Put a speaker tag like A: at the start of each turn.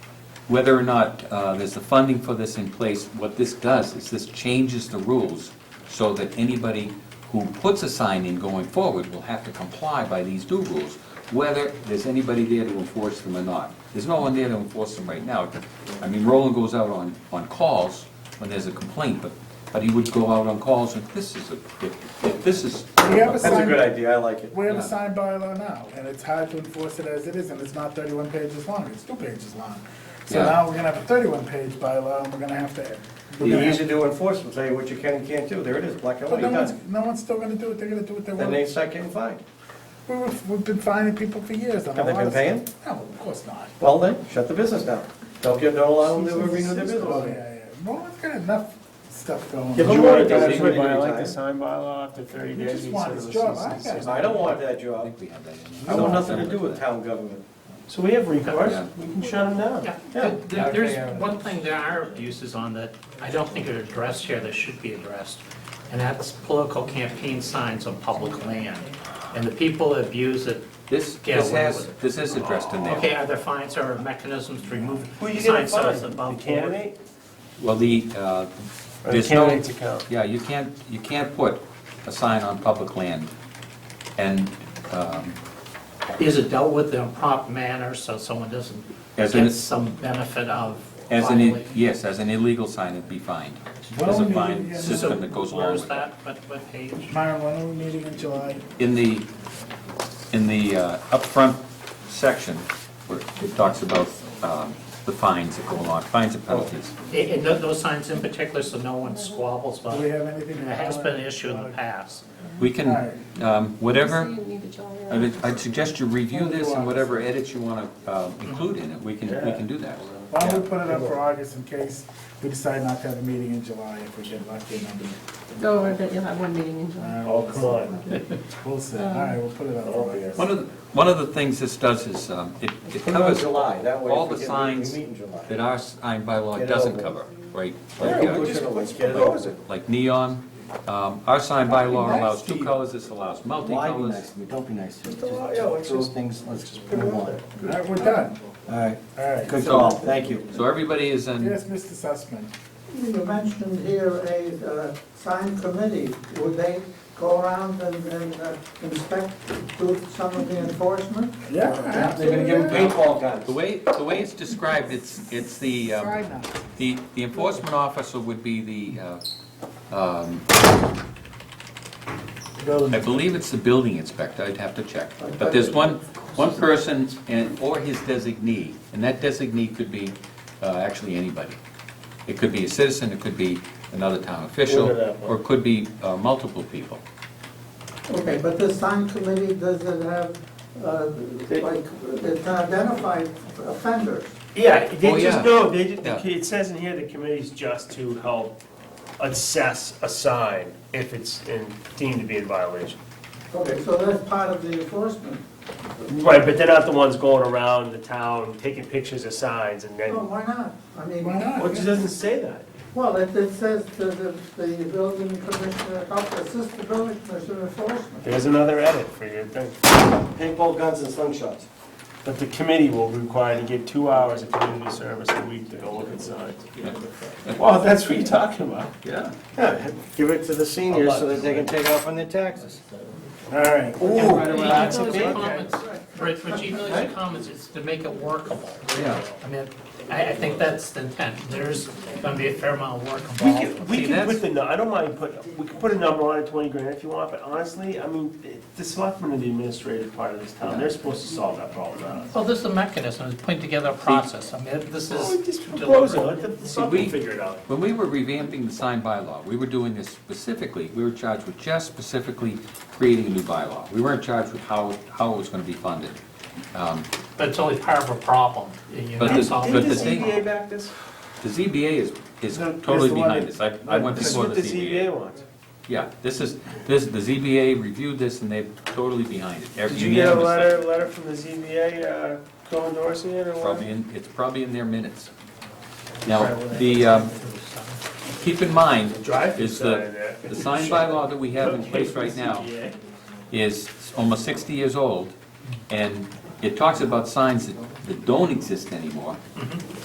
A: whether or not uh, there's the funding for this in place, what this does is this changes the rules so that anybody who puts a sign in going forward will have to comply by these new rules, whether there's anybody there to enforce them or not. There's no one there to enforce them right now. I mean, Roland goes out on, on calls when there's a complaint, but, but he would go out on calls and this is a, if, if this is.
B: We have a
C: That's a
B: sign,
C: good idea, I like it.
B: we have
A: Yeah.
B: a signed bylaw now, and it's hard to enforce it as it is, and it's not thirty-one pages long, it's two pages long. So
A: Yeah.
B: now we're gonna have a thirty-one page bylaw, and we're gonna have to. we're
C: The
B: gonna
C: easy to enforce, will tell you what you can and can't do, there it is, black and
B: But
C: white,
B: no one's,
C: done.
B: no one's still gonna do it, they're gonna do what they
C: Then they
B: want.
C: start getting fined.
B: We were- We've been finding people for years on a
C: Have they
B: lot of
C: been paying?
B: stuff. No, of course not.
C: Well then, shut the business down. Don't give, don't allow them to renew their
B: Oh, yeah,
C: business.
B: yeah, Roland's got enough stuff going.
C: Give
B: on.
D: Do you
C: him
D: want
C: Does
D: to
C: he
D: actually
C: retire?
D: violate the sign bylaw after thirty
B: You
D: days?
B: just want
D: instead of
B: his
D: the
B: job,
D: 60?
B: I got it.
C: I don't want that
A: I
C: job.
A: think we have that in there.
C: I want nothing to do with town government.
D: So we have recourse,
A: Yeah.
D: we can shut them down.
E: Yeah,
C: Yeah.
E: th- th- there's one thing, there are abuses on that I don't think are addressed here that should be addressed, and that's political campaign signs on public land. And the people that abuse it,
A: This,
E: Yeah,
A: this
E: what-
A: has, this is addressed in there.
E: okay, are there fines or mechanisms to remove
D: Who are you gonna
E: signs so it's
D: find? The
E: above board?
D: candidate?
A: Well, the, uh,
D: Or the
A: there's no-
D: candidate's account?
A: Yeah, you can't, you can't put a sign on public land. And um,
E: Is it dealt with in a prompt manner so someone doesn't
A: As in-
E: get some benefit of
A: as an, i-
E: violating?
A: yes, as an illegal sign, it'd be fined. There's
B: Well,
A: a
B: you-
A: fine
B: yeah,
A: system that goes along
E: Where is
A: with it.
E: that, what, what page?
B: Myron, when are we meeting in July?
A: In the, in the uh, upfront section, where it talks about um, the fines that go along, fines and penalties.
E: And and tho- those signs in particular, so no one squabbles about
B: Do we
E: it.
B: have anything?
E: It has been an issue in the past.
A: We can, um, whatever.
F: So you need a jolly
A: I
F: roger.
A: would- I'd suggest you review this and whatever edits you want to include in it, we can, we can do that.
B: Why don't we put it up for August in case we decide not to have a meeting in July if we get lucky and under.
F: No, I bet you'll have one meeting in July.
B: Oh, come on. We'll see, all right, we'll put it up for August.
A: One of, the- one of the things this does is, um, it it
C: Put it on
A: covers
C: July, that way
A: all
C: if we
A: the
C: get- we
A: signs
C: meet in July.
A: that our sign bylaw
C: Get it
A: doesn't
C: over.
A: cover, right? Like,
C: Yeah,
A: uh,
C: we just- let's get it over.
A: Like neon, um, our sign bylaw
B: nice
A: allows
B: to
A: two
B: you.
A: colors, this allows
G: Why be nice
A: multicolors.
G: to me? Don't be nice to me.
C: Just allow- yeah, let's
G: Just those
C: just-
G: things, let's just
C: Put it
G: move
C: on
G: on.
C: there.
B: All right, we're done,
G: All right,
B: all right.
G: good call, thank you.
A: So everybody is in,
B: Yes, Mr. Sussman.
H: You mentioned here a uh, sign committee. Would they go around and and, uh, inspect, do some of the enforcement?
B: Yeah,
C: They're gonna give them
B: absolutely.
C: paintball
A: the
C: guns.
A: way, the way it's described, it's, it's the, um,
B: Try not.
A: the the enforcement officer would be the, uh, um, I believe it's the building inspector, I'd have to check. But there's one, one person and, or his designee, and that designee could be uh, actually anybody. It could be a citizen, it could be another town official, or it could be uh, multiple people.
H: Okay, but the sign committee, does it have, uh, like, it can identify offenders?
D: Yeah,
A: Oh,
D: they
A: yeah.
D: just, no, they, just- the
A: Yeah.
D: key- it says in here, the committee's just to help assess a sign if it's in- deemed to be in violation.
H: Okay, so that's part of the enforcement.
D: Right, but they're not the ones going around the town taking pictures of signs and then.
H: Well, Oh, why not? I mean,
B: Why not?
D: Well, it just doesn't say that.
H: Well, it it says to the the building commissioner, help assist the building commissioner enforcement.
D: There's another edit for your thing.
C: Paintball guns and slingshots.
D: But the committee will be required to give two hours of community service a week to go look at signs. Well, that's what you're talking about.
A: Yeah.
C: Yeah, give it to the seniors so that they can take off on their taxes.
B: All right.
C: Ooh,
D: Lots of
E: Those
D: big-
E: comments, For, for Chief Miller's comments, it's to make it workable.
A: Oh, Yeah.
E: I mean, I, I think that's the intent, there's gonna be a fair amount of work
D: We
E: involved.
D: can, we
A: See,
D: can
A: that's-
D: put the, nu- I don't mind put, we can put a number on it, twenty grand if you want, but honestly, I mean, it- the selectmen are the administrative part of this town, they're supposed to solve that problem, not us.
E: Well, this is a mechanism, it's putting together a process, I mean, this
D: Well, we
E: is.
D: just propose Oh, it, let
E: deliberate.
D: the- the
A: we-
D: selectmen figure it out.
A: When we were revamping the sign bylaw, we were doing this specifically, we were charged with just specifically creating a new bylaw. We weren't charged with how, how it was going to be funded. Um,
E: But it's only part of a problem, and you're
A: But
E: not
A: this-
E: solving.
A: but
D: Did
A: the
D: the
E: it.
A: thing-
D: ZBA back this?
A: The ZBA is, is
D: No, it's
A: totally
D: the one
A: behind
D: that-
A: this, I I went
D: This is
A: before
D: what
A: the
D: the
A: ZBA.
D: ZBA wants.
A: Yeah, this is, this, the ZBA reviewed this and they're totally behind it.
D: Did you get a
A: Unanimously.
D: letter, letter from the ZBA, uh, co endorsing it or what?
A: Probably in, it's probably in their minutes. Now, the, um, keep in mind,
D: Drive-through
A: is
D: sign in
A: the,
D: there.
A: the sign bylaw that we have in place right now
D: ZBA.
A: is almost sixty years old, and it talks about signs that, that don't exist anymore.